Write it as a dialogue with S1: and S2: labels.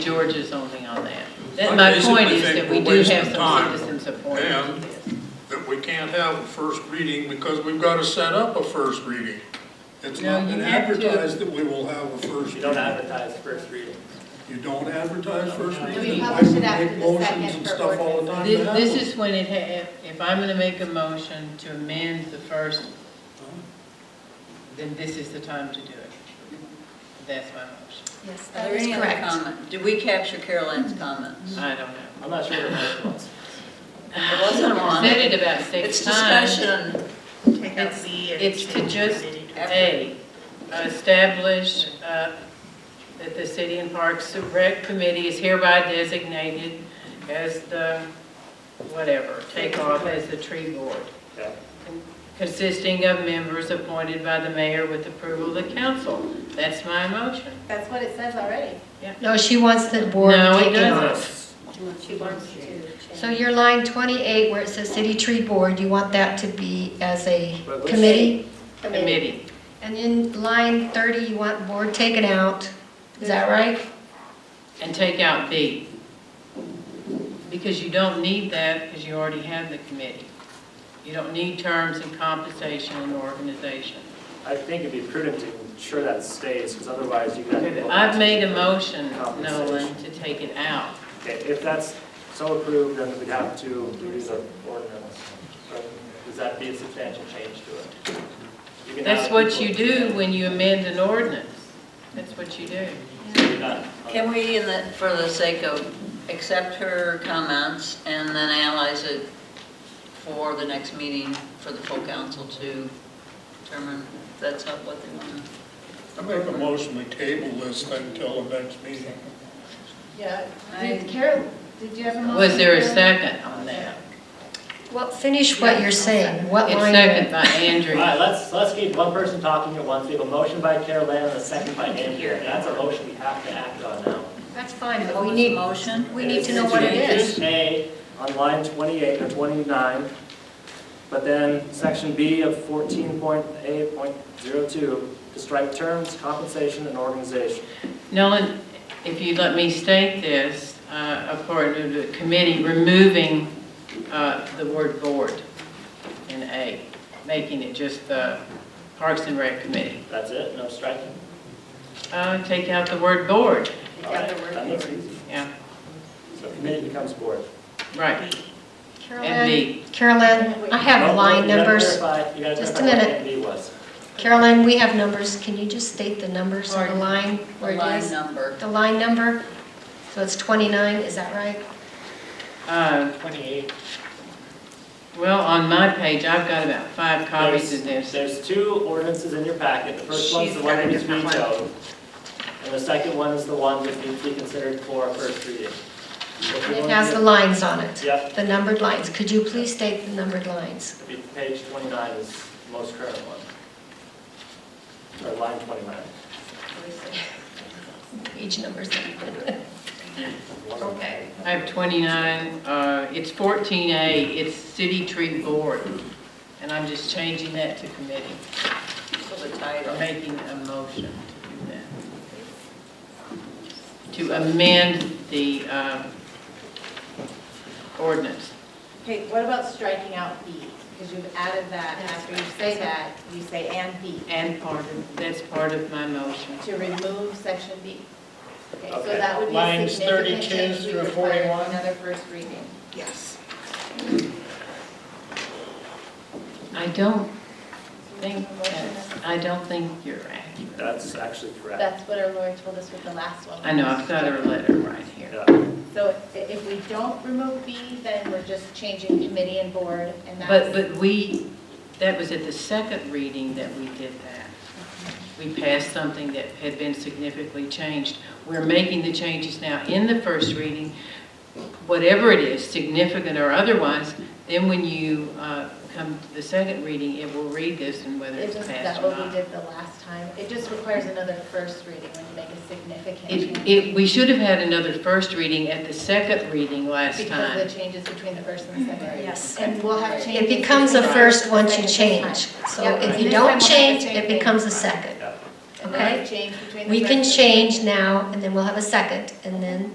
S1: George is only on that. That-
S2: I
S1: My point
S2: basically
S1: is
S2: think
S1: that we
S2: we're
S1: do
S2: wasting
S1: have some
S2: time.
S1: citizen support on
S2: And-
S1: this.
S2: that we can't have a first reading because we've got to set up a first reading. It's
S1: No,
S2: not
S1: you
S2: been
S1: have to.
S2: advertised that we will have a first
S3: You don't
S2: reading.
S3: advertise first reading.
S2: You don't advertise first
S3: No, we
S2: reading. Why
S4: publish it
S2: we make
S4: after the
S2: motions
S4: second
S2: and
S4: for
S2: stuff all the time to
S1: Thi-
S2: have
S1: This
S2: them?
S1: is when it, ha- if- if I'm gonna make a motion to amend the first, then this is the time to do it. That's my motion.
S4: Yes,
S5: Are
S4: that
S5: there
S4: is
S5: any other
S4: correct.
S5: comments? Did we capture Caroline's comments?
S1: I don't know.
S3: I'm not sure what it was.
S5: There wasn't
S1: I
S5: one.
S1: Said it about six
S5: It's
S1: times.
S5: discussion.
S6: Take out
S1: It's-
S6: B and
S1: It's to
S6: change
S1: just,
S6: city to-
S1: A, establish uh, that the City and Parks Rec Committee is hereby designated as the, whatever, take off as the tree board,
S3: Yeah.
S1: consisting of members appointed by the mayor with approval of the council. That's my motion.
S4: That's what it says already.
S7: No, she wants the board
S1: No, it
S7: taken
S1: doesn't.
S7: off.
S4: She wants to change.
S7: So your line 28, where it says city tree board, you want that to be as a
S3: But let's-
S7: committee?
S1: Committee.
S7: And then line 30, you want board taken out, is that right?
S1: And take out B. Because you don't need that, because you already have the committee. You don't need terms and compensation and organization.
S3: I think it'd be prudent to ensure that stays, because otherwise you could. have-
S1: I've made a motion, Nolan, to take it out.
S3: Okay, if that's so approved, then we'd have to use the ordinance. Or Does that be a substantial change to it? You can
S1: That's
S3: have
S1: what
S3: people-
S1: you do when you amend an ordinance. That's what you do.
S3: You're not-
S5: Can we, in the- for the sake of, accept her comments and then analyze it for the next meeting for the full council to determine if that's not what they want?
S2: I make a motion, we table this thing till the next meeting.
S4: Yeah.
S5: I-
S4: Did Carol, did you have a motion?
S1: Was there a
S4: Carol?
S1: second on that?
S7: Well, finish what you're saying, what
S1: It's
S7: line?
S1: second by
S3: All
S1: Andrew.
S3: right, let's, let's keep one person talking at once. We have a motion by Caroline and a second by Andrew. And that's a motion we have to act on now.
S7: That's fine, but
S5: What
S7: we
S5: was the
S7: need,
S5: motion?
S7: we need to know what it is.
S3: A on line 28 or 29, but then section B of 14.8.02 to strike terms, compensation, and organization.
S1: Nolan, if you'd let me state this, uh, according to the committee, removing uh, the word board in A, making it just the Parks and Rec Committee.
S3: That's it, no striking?
S1: Uh, Take out the word board,
S3: All right, That makes it easy.
S1: yeah,
S3: So committee becomes board.
S1: right, and
S7: Carolyn,
S1: B.
S7: Carolyn, I
S3: No,
S7: have
S3: no,
S7: line
S3: you gotta
S7: numbers.
S3: clarify- You gotta
S7: Just a
S3: clarify what
S7: minute.
S3: A and B was.
S7: Carolyn, we have numbers, can you just state the numbers on the line where
S5: The
S7: it
S5: line
S7: is?
S5: number.
S7: The line number, so it's 29, is that right?
S1: Uh,
S3: 28.
S1: Well, on my page, I've got about five copies of this.
S3: There's two ordinances in your packet. The first one's the
S6: She's
S3: one
S6: got
S3: that
S6: a
S3: needs to be
S6: different one.
S3: vetoed. And the second one is the one that needs to be considered for a first reading. If you
S7: And it
S3: want
S7: has
S3: to-
S7: the lines on it.
S3: Yep.
S7: The numbered lines, could you please state the numbered lines?
S3: It'd be Page 29 is the most current one. Or line 29.
S7: Each number's. Okay.
S1: I have 29, uh, it's 14A, it's City Tree Board, and I'm just changing that to committee,
S5: So the
S1: or
S5: title.
S1: making a motion to do that. To amend the um, ordinance.
S4: Okay, what about striking out B? Because you've added that, after you say that, you say and B,
S1: And part of, that's part of my motion.
S4: to remove section B. Okay, so
S3: Okay.
S4: that would be a
S3: Lines
S4: significant
S3: 32
S4: change. We
S3: through
S4: require
S3: 41.
S4: Another first reading.
S6: Yes.
S1: I don't think, that's- I don't think you're accurate.
S3: That's actually correct.
S4: That's what our lawyer told us with the last one.
S1: I know, I've got her letter right here.
S3: Yeah.
S4: So i- if we don't remove B, then we're just changing committee and board, and that's.
S1: But, but we, that was at the second reading that we did that. We passed something that had been significantly changed. We're making the changes now in the first reading, whatever it is, significant or otherwise, then when you uh, come to the second reading, it will read this and whether
S4: It
S1: it's
S4: just,
S1: passed
S4: that
S1: or
S4: what we
S1: not.
S4: did the last time, it just requires another first reading when you make a significant
S1: It,
S4: change.
S1: it, we should have had another first reading at the second reading last
S4: Because
S1: time.
S4: of the changes between the first and the second reading.
S6: Yes.
S4: And we'll have changes.
S7: It becomes a
S4: between
S7: first
S4: the
S7: once you
S4: second and
S7: change.
S4: the
S7: So
S4: Yep,
S7: if
S4: and this time
S7: you
S4: we'll
S7: don't
S4: have the
S7: change,
S4: same
S7: it
S4: thing.
S7: becomes a second.
S3: Yeah.
S4: And we'll have
S7: okay?
S4: change between the
S7: We can
S4: first and the second.
S7: change now, and then we'll have a second, and then